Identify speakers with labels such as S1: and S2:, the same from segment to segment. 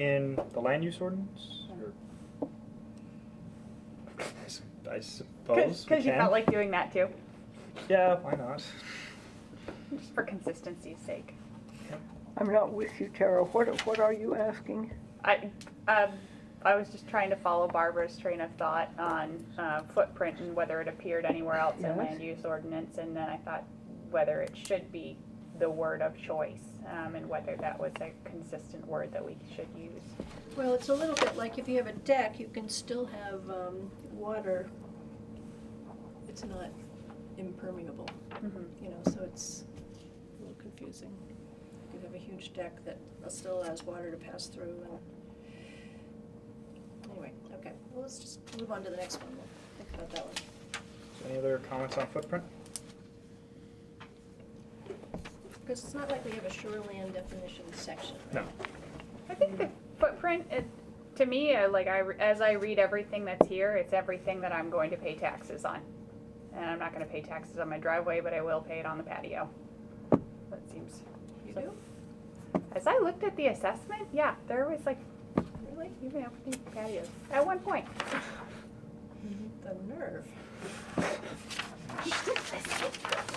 S1: in the land use ordinance? or- I s- I suppose we
S2: Because you
S1: can.
S2: felt like doing that too,
S1: Yeah, why not?
S2: just for consistency's sake.
S3: I'm not with you, Tara. What, what are you asking?
S2: I, um, I was just trying to follow Barbara's train of thought on uh, footprint and whether it appeared anywhere else in
S3: Yes.
S2: land use ordinance, and then I thought whether it should be the word of choice, um, and whether that was a consistent word that we should use.
S4: Well, it's a little bit like if you have a deck, you can still have um, water. It's not impermeable,
S2: Mhm.
S4: you know, so it's a little confusing. You could have a huge deck that still allows water to pass through and, anyway, okay. Well, let's just move on to the next one. We'll think about that one.
S1: So Any other comments on footprint?
S4: Because it's not like we have a shoreline definition section.
S1: No.
S2: I think the footprint, it, to me, I, like I, re- as I read everything that's here, it's everything that I'm going to pay taxes on. And I'm not gonna pay taxes on my driveway, but I will pay it on the patio. That seems,
S4: You do?
S2: as I looked at the assessment, yeah, there was like,
S4: Really?
S2: you can have these patios, at one point.
S4: The nerve.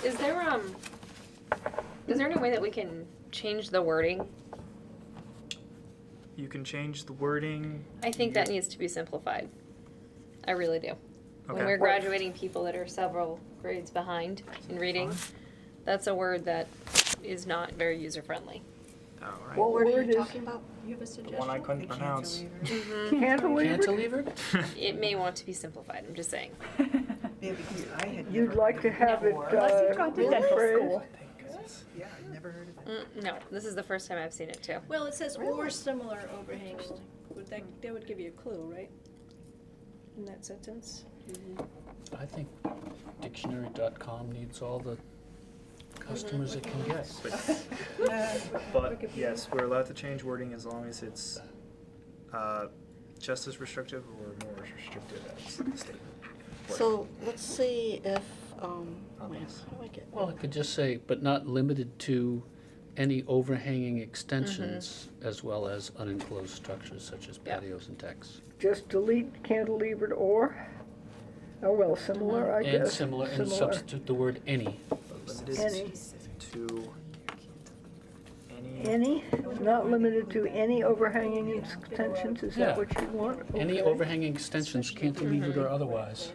S5: Is there, um, is there any way that we can change the wording?
S1: You can change the wording.
S5: I think that
S1: You-
S5: needs to be simplified. I really do. When
S1: Okay.
S5: we're graduating people that are several grades behind in reading, that's a word that is not very user-friendly.
S1: All right.
S3: What
S4: What are
S3: word
S4: you
S3: is
S4: talking about? You have a
S1: The
S4: suggestion?
S1: one I couldn't pronounce.
S3: cantilever?
S6: Hmm. Cantilever?
S5: It may want to be simplified, I'm just saying.
S7: Yeah, because I had never.
S3: You'd like to
S7: heard of
S3: have it,
S7: before.
S2: Unless
S3: uh,
S2: you've gone to dental
S3: rephrased?
S2: school.
S7: Yeah, I never heard of it.
S5: Mm, No, this is the first time I've seen it too.
S4: Well, it says or
S7: Really?
S4: similar overhang, would that, that would give you a clue, right? In that sentence?
S6: I think dictionary.com needs all the customers it can get.
S1: But yes, we're allowed to change wording as long as it's uh, just as restrictive or more restrictive as the state. wording.
S7: Mm-hmm. So let's see if, um,
S1: Oh,
S7: wait,
S1: yes.
S7: how do I get?
S6: Well, it could just say, but not limited to any overhanging extensions as well as unenclosed structures such as
S5: Yeah.
S6: patios and decks.
S3: Just delete cantilevered or, oh, well, similar, I guess.
S6: Hmm. And similar, and substitute the word any.
S1: But limited
S3: Any.
S1: To any,
S3: Any, not limited to any overhanging extensions, is that
S6: Yeah.
S3: what you want?
S6: Any
S3: Okay.
S6: overhanging extensions, cantilevered
S4: Mm-hmm.
S6: or otherwise.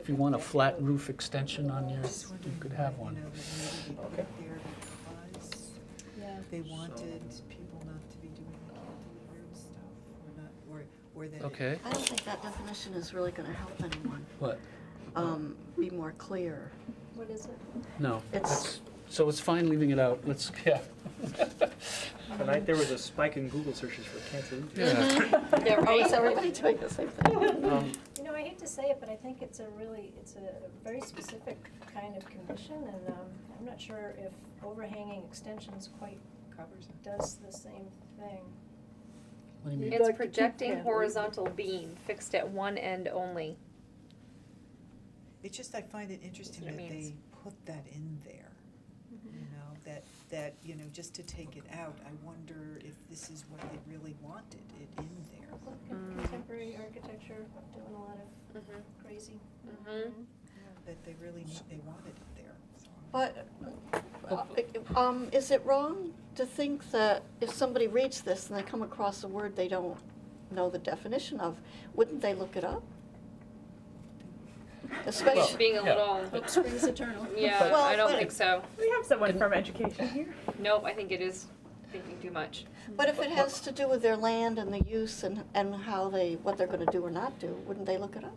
S6: If you want a flat roof extension on your, you could have one.
S1: Okay.
S4: Yeah.
S7: They wanted people not to be doing the cantilevered stuff or not, or, or that. it-
S6: Okay,
S8: I don't think that definition is really gonna help anyone,
S6: what?
S8: um, be more clear.
S4: What is it?
S6: No.
S8: It's-
S6: So it's fine leaving it out. Let's, yeah.
S1: tonight there was a spike in Google searches for cantilever.
S6: Yeah.
S5: Yeah,
S8: Oh, is everybody doing the same thing?
S1: Um,
S4: You know, I hate to say it, but I think it's a really, it's a very specific kind of condition, and um, I'm not sure if overhanging extensions quite
S7: Covers it.
S4: does the same thing.
S6: What do you mean?
S3: You'd like to
S5: It's
S3: keep
S5: projecting
S3: cantilever.
S5: horizontal beam fixed at one end only.
S7: It's just I find it interesting
S5: what
S7: that
S5: it means. Mm-hmm.
S7: they put that in there,
S4: Mm-hmm.
S7: you know, that, that, you know, just to take it out. I wonder if this is what they really wanted, it in there.
S4: Look at contemporary architecture, doing a lot of
S5: Mhm,
S4: crazy.
S5: mhm.
S4: Mm-hmm.
S7: That they really, need- they wanted it there, so.
S8: But, uh, um, is it wrong to think that if somebody reads this and they come across a word they don't know the definition of, wouldn't they look it up?
S5: It's
S8: Especially,
S5: being a
S6: yeah.
S5: little,
S4: Hope springs eternal.
S5: yeah,
S8: Well,
S5: I don't
S8: but-
S5: think so.
S2: We have someone from education here.
S5: Nope, I think it is thinking too much.
S8: but if it has to do with their land and the use and, and how they, what they're gonna do or not do, wouldn't they look it up?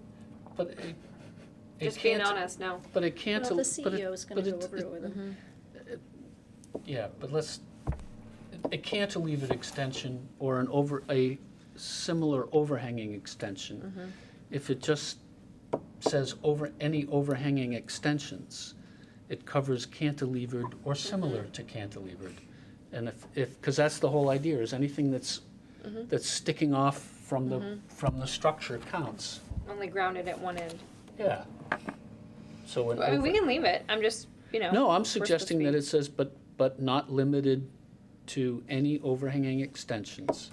S6: But a- a
S5: Just being
S6: canti-
S5: honest, no.
S6: But it can't.
S4: Well, the
S6: but it-
S4: CEO is gonna
S6: but
S4: go
S6: it-
S4: over it with them.
S6: Yeah, but let's, a cantilevered extension or an over, a similar overhanging
S4: Mm-hmm.
S6: extension. If it just says over, any overhanging extensions, it covers cantilevered
S4: Mm-hmm.
S6: or similar to cantilevered. And if, if, because that's the whole idea, is anything that's,
S4: Mm-hmm.
S6: that's sticking off from the, from the structure counts.
S5: Only grounded at one end.
S6: Yeah. So an
S5: I mean,
S6: over-
S5: we can leave it. I'm just, you know.
S6: No,
S5: we're
S6: I'm
S5: supposed to
S6: suggesting that
S5: be-
S6: it says, but, but not limited to any overhanging extensions